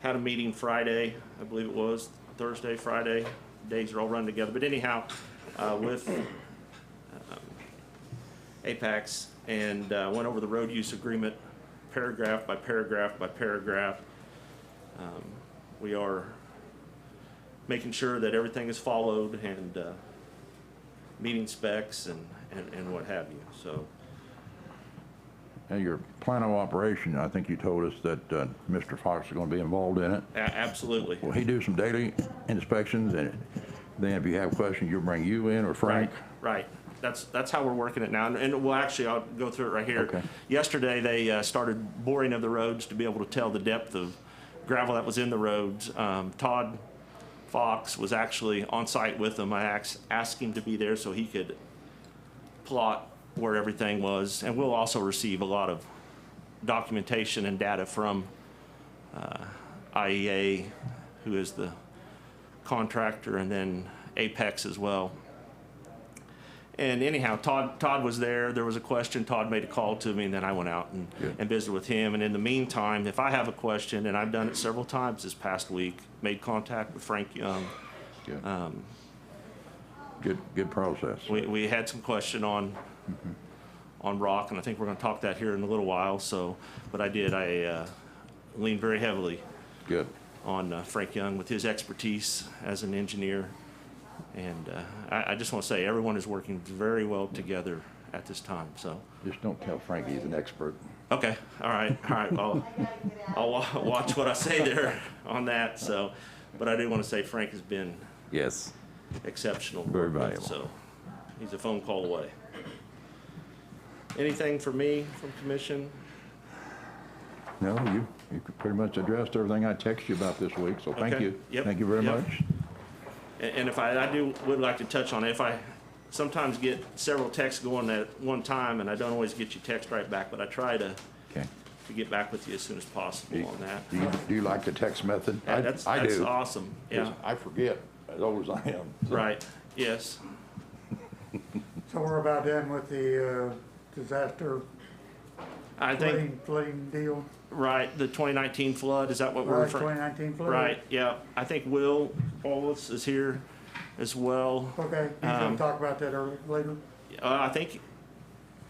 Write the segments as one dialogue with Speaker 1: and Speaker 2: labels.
Speaker 1: had a meeting Friday, I believe it was, Thursday, Friday. Days are all run together. But anyhow, uh, with um, Apex and uh, went over the road use agreement paragraph by paragraph by paragraph. Um, We are making sure that everything is followed and uh, meeting specs and, and and what have you. So
Speaker 2: And your plan of operation, I think you told us that uh, Mr. Fox is going to be involved in it.
Speaker 1: a- absolutely.
Speaker 2: Will he do some daily inspections, and then if you have questions, you'll bring you in or Frank?
Speaker 1: Right, right. That's, that's how we're working it now. And- And well, actually, I'll go through it right here.
Speaker 2: Okay.
Speaker 1: Yesterday, they uh, started boring of the roads to be able to tell the depth of gravel that was in the roads. Um, Todd Fox was actually on site with them. I ax- asked him to be there so he could plot where everything was. And we'll also receive a lot of documentation and data from uh, IEA, who is the contractor, and then Apex as well. And anyhow, Todd, Todd was there. There was a question. Todd made a call to me, and then I went out and,
Speaker 2: Good.
Speaker 1: and visited with him. And in the meantime, if I have a question, and I've done it several times this past week, made contact with Frank Young.
Speaker 2: Good.
Speaker 1: Um,
Speaker 2: Good, good process.
Speaker 1: We, we had some question on, on rock, and I think we're gonna talk that here in a little while, so, but I did, I, uh, leaned very heavily
Speaker 2: Good.
Speaker 1: on uh, Frank Young with his expertise as an engineer. And, uh, I, I just wanna say, everyone is working very well together at this time, so.
Speaker 2: Just don't tell Frank he's an expert.
Speaker 1: Okay, all right, all right, well, I'll wa- watch what I say there on that, so, but I do wanna say Frank has been
Speaker 2: Yes.
Speaker 1: exceptional. to
Speaker 2: Very
Speaker 1: work with,
Speaker 2: valuable.
Speaker 1: So, he's a phone call away. Anything for me from commission?
Speaker 2: No, you, you pretty much addressed everything I texted you about this week, so thank
Speaker 1: Okay.
Speaker 2: you.
Speaker 1: Yep.
Speaker 2: Thank you very
Speaker 1: Yep.
Speaker 2: much.
Speaker 1: A- And if I, I do, would like to touch on it, if I sometimes get several texts going at one time, and I don't always get your text right back, but I try to,
Speaker 2: Okay.
Speaker 1: to get back with you as soon as
Speaker 2: Do
Speaker 1: possible on that.
Speaker 2: you, do you like the text method? I-
Speaker 1: That's,
Speaker 2: I
Speaker 1: that's
Speaker 2: do.
Speaker 1: awesome, yeah,
Speaker 2: 'cause I forget, as old as I am.
Speaker 1: right, yes.
Speaker 3: So we're about done with the uh, disaster
Speaker 1: I think,
Speaker 3: flooding, flooding deal,
Speaker 1: right, the 2019 flood, is that what we're
Speaker 3: right,
Speaker 1: referring?
Speaker 3: 2019 flood?
Speaker 1: Right, yeah, I think Will Wallace is here as well.
Speaker 3: Okay, you
Speaker 1: Um,
Speaker 3: can talk about that earlier, later.
Speaker 1: Uh, I think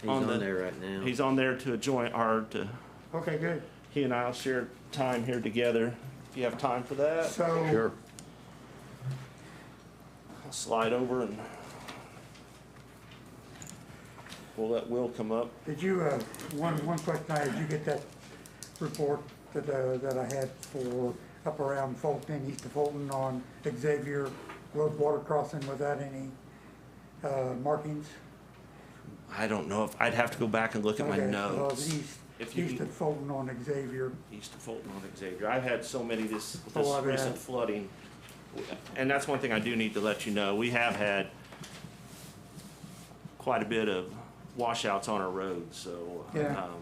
Speaker 4: He's
Speaker 1: on
Speaker 4: on,
Speaker 1: the-
Speaker 4: there right now.
Speaker 1: He's on there to join our, to,
Speaker 3: Okay, good.
Speaker 1: he and I'll share time here together. If you have time for that,
Speaker 3: So,
Speaker 2: Sure.
Speaker 1: I'll slide over and we'll let Will come up.
Speaker 3: did you, uh, one, one question I had, did you get that report that, uh, that I had for up around Fulton and east of Fulton on Xavier Road water crossing without any uh, markings?
Speaker 1: I don't know if, I'd have to go back and look at my
Speaker 3: Okay, well,
Speaker 1: notes. If
Speaker 3: East,
Speaker 1: you
Speaker 3: east
Speaker 1: can-
Speaker 3: of Fulton on Xavier.
Speaker 1: East of Fulton on Xavier. I've had so many this,
Speaker 3: Oh,
Speaker 1: this
Speaker 3: I've had-
Speaker 1: recent flooding. And that's one thing I do need to let you know. We have had quite a bit of washouts on our roads, so. uh,
Speaker 3: Yeah.
Speaker 1: um,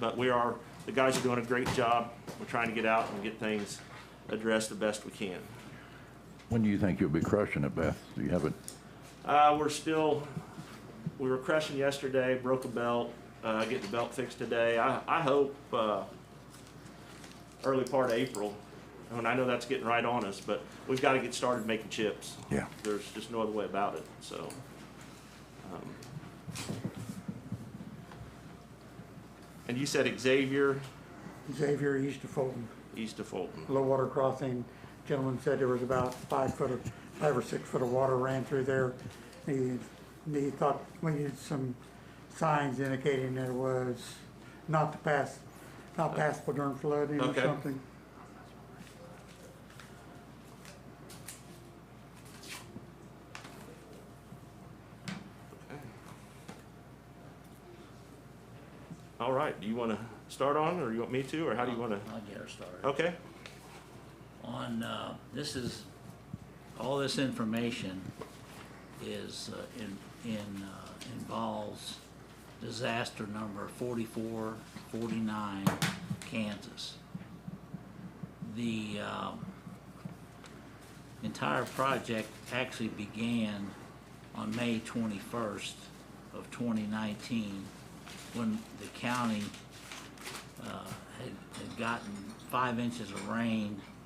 Speaker 1: But we are, the guys are doing a great job. We're trying to get out and get things addressed the best we can.
Speaker 2: When do you think you'll be crushing it, Beth? Do you have it?
Speaker 1: Uh, we're still, we were crushing yesterday, broke a belt, uh, getting the belt fixed today. I, I hope, uh, early part of April. And I know that's getting right on us, but we've gotta get started making chips.
Speaker 2: Yeah.
Speaker 1: There's just no other way about it, so. um, And you said Xavier,
Speaker 3: Xavier east of Fulton.
Speaker 1: east of Fulton.
Speaker 3: low water crossing. Gentleman said there was about five foot of, five or six foot of water ran through there. He, he thought we needed some signs indicating that it was not to pass, not passable during flooding or
Speaker 1: Okay.
Speaker 3: something.
Speaker 1: All right, do you wanna start on, or you want me to, or how do you wanna?
Speaker 4: I'll get her started.
Speaker 1: Okay,
Speaker 4: On, uh, this is, all this information is, uh, in, in, uh, involves disaster number forty-four, forty-nine, Kansas. The, um, entire project actually began on May twenty-first of twenty nineteen, when the county uh, had, had gotten five inches of rain